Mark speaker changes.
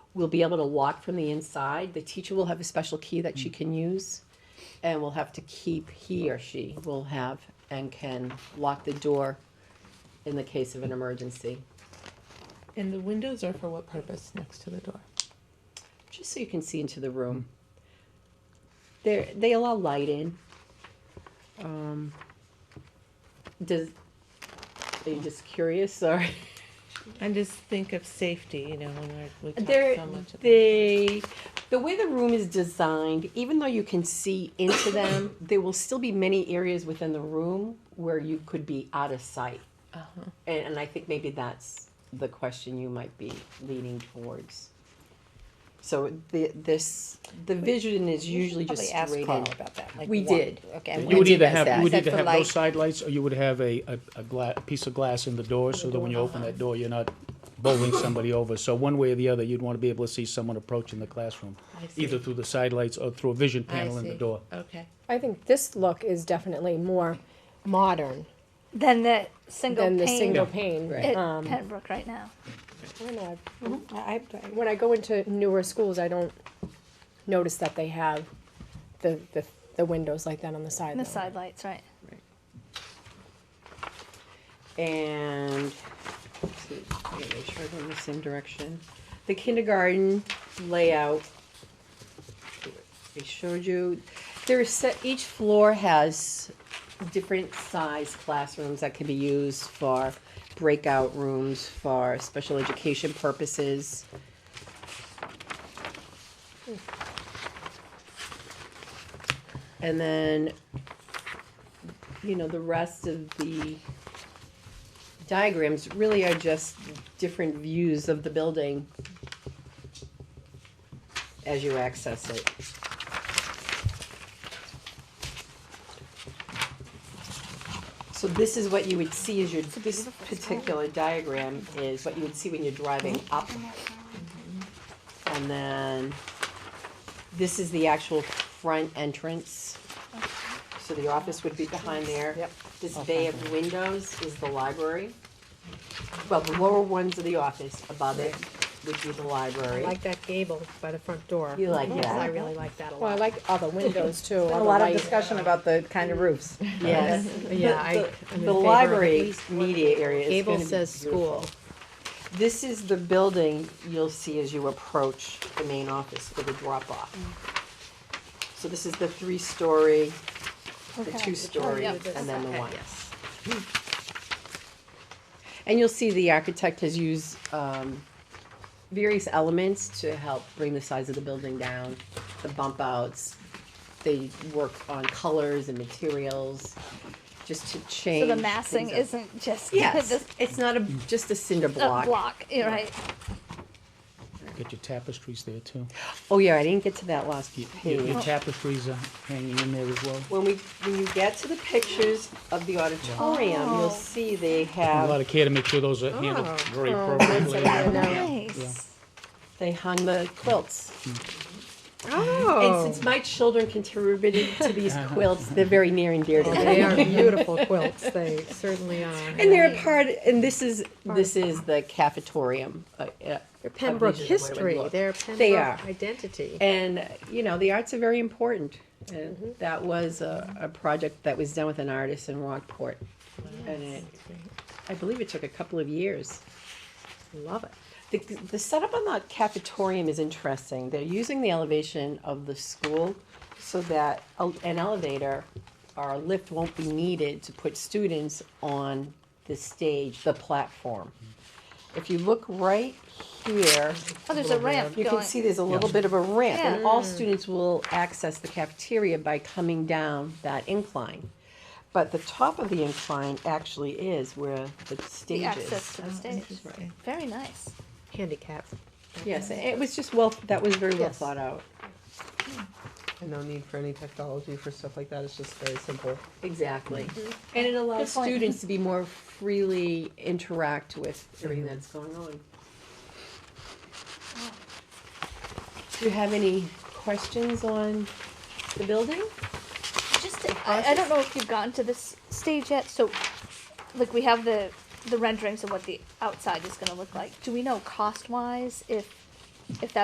Speaker 1: we'll be able to lock from the inside. The teacher will have a special key that she can use. And will have to keep, he or she will have and can lock the door in the case of an emergency.
Speaker 2: And the windows are for what purpose next to the door?
Speaker 1: just so you can see into the room. They they allow light in. Um, does are you just curious or
Speaker 2: And just think of safety, you know, when we're, we talk
Speaker 1: they
Speaker 2: so much about
Speaker 1: they the way the room is designed, even though you can see into them, there will still be many areas within the room where you could be out of sight.
Speaker 2: uh-huh.
Speaker 1: And, and I think maybe that's the question you might be leaning towards. So the, this, the vision is usually just
Speaker 3: Probably ask
Speaker 1: straight
Speaker 3: Carl
Speaker 1: in.
Speaker 3: about that. like,
Speaker 1: We
Speaker 3: why-
Speaker 1: did.
Speaker 3: Okay.
Speaker 4: You
Speaker 3: why
Speaker 4: would
Speaker 3: did
Speaker 4: either
Speaker 3: you
Speaker 4: have,
Speaker 3: ask
Speaker 4: you would
Speaker 3: that?
Speaker 4: either
Speaker 3: For
Speaker 4: have no
Speaker 3: like-
Speaker 4: side lights, or you would have a, a, a gla- piece of glass in the door, so that when you open that door, you're not bowling somebody over. So one way or the other, you'd wanna be able to see someone approaching the classroom,
Speaker 2: I see.
Speaker 4: either through the side lights or through a vision
Speaker 2: I
Speaker 4: panel in the
Speaker 2: see.
Speaker 4: door.
Speaker 2: Okay.
Speaker 5: I think this look is definitely more modern
Speaker 3: Than the single
Speaker 5: than the single
Speaker 3: pane
Speaker 5: pane.
Speaker 3: at
Speaker 5: Um,
Speaker 3: Pembroke right now.
Speaker 5: when I-
Speaker 1: Mm-hmm.
Speaker 3: I, I,
Speaker 5: When I go into newer schools, I don't notice that they have the, the, the windows like that on the side.
Speaker 3: the
Speaker 5: though.
Speaker 3: side lights, right.
Speaker 1: And, let's see, I gotta make sure I go in the same direction. The kindergarten layout, I showed you, there's, se- each floor has different size classrooms that can be used for breakout rooms for special education purposes. And then, you know, the rest of the diagrams really are just different views of the building as you access it. So this is what you would see as your, this particular diagram is what you would see when you're driving up. And then this is the actual front entrance. So the office would be behind there.
Speaker 5: Yep.
Speaker 1: This bay of windows is the library. Well, the lower ones are the office, above it would be the
Speaker 6: I
Speaker 1: library.
Speaker 6: like that gable by the front door.
Speaker 1: You like
Speaker 6: Because
Speaker 1: that.
Speaker 6: I really like that a lot.
Speaker 5: Well, I like all the windows too. all
Speaker 7: A
Speaker 5: the
Speaker 7: lot of
Speaker 5: light.
Speaker 7: discussion about the kind of roofs.
Speaker 1: Yes.
Speaker 6: Yeah, I- I'm
Speaker 1: The-
Speaker 6: in
Speaker 1: The
Speaker 6: favor of at
Speaker 1: library
Speaker 6: least one
Speaker 1: media area is
Speaker 6: Gable
Speaker 1: gonna be
Speaker 6: says school.
Speaker 1: This is the building you'll see as you approach the main office for the drop-off. So this is the three-story, the
Speaker 3: Okay.
Speaker 1: two-story,
Speaker 3: Yeah.
Speaker 1: and then the
Speaker 2: Okay,
Speaker 1: one.
Speaker 2: yes.
Speaker 1: And you'll see the architect has used um, various elements to help bring the size of the building down, the bump outs. They work on colors and materials, just to change.
Speaker 3: So the massing
Speaker 1: things up.
Speaker 3: isn't just
Speaker 1: Yes,
Speaker 3: just
Speaker 1: it's not a, just a cinder
Speaker 3: a
Speaker 1: block.
Speaker 3: block, you're right?
Speaker 4: Get your tapestries there too.
Speaker 1: Oh, yeah, I didn't get to that last
Speaker 4: Y- y- Your,
Speaker 1: page.
Speaker 4: tapestries are hanging in there as well.
Speaker 1: When we, when you get to the pictures of the auditorium,
Speaker 3: Oh.
Speaker 1: you'll see they
Speaker 4: A lot
Speaker 1: have,
Speaker 4: of care to make sure those are handled very
Speaker 5: that's
Speaker 4: appropriately.
Speaker 5: a- no.
Speaker 3: Nice. Oh,
Speaker 1: they hung the quilts. And
Speaker 6: Oh,
Speaker 1: since my children contributed to these quilts, they're very near and dear to me.
Speaker 6: they are beautiful quilts, they certainly are.
Speaker 1: And they're a part, and this is, this is the cafetorium. uh, uh,
Speaker 6: They're Pembroke
Speaker 1: Original, what it would
Speaker 6: history,
Speaker 1: look.
Speaker 6: they're
Speaker 1: They
Speaker 6: Pembroke
Speaker 1: are.
Speaker 6: identity.
Speaker 1: And, uh, you know, the arts are very important. And that was a, a project that was done with an artist in Rockport. And it, I believe it took a couple of years.
Speaker 6: Love it.
Speaker 1: The, the setup on the cafetorium is interesting. They're using the elevation of the school so that a- an elevator or a lift won't be needed to put students on the stage, the platform. If you look right here,
Speaker 3: Oh, there's a ramp
Speaker 1: you can
Speaker 3: going. Mm.
Speaker 1: see there's a little bit of a ramp, and
Speaker 3: Yeah.
Speaker 1: all students will access the cafeteria by coming down that incline. But the top of the incline actually is where the
Speaker 3: The
Speaker 1: stage Oh, is.
Speaker 3: access to the stage. Very nice.
Speaker 6: Handicap.
Speaker 1: Yes, and it was just well, that was very well
Speaker 6: Yes.
Speaker 1: thought out.
Speaker 7: And no need for any technology for stuff like that, it's just very simple.
Speaker 1: Exactly. And it allows
Speaker 3: Mm-hmm. Good point.
Speaker 1: students to be more freely interact with everything that's going on. Do you have any questions on the building?
Speaker 3: Just, I, I don't know if you've gotten to this stage yet, so, like, we have the, the renderings of what the outside is gonna look like. Do we know cost-wise if, if that's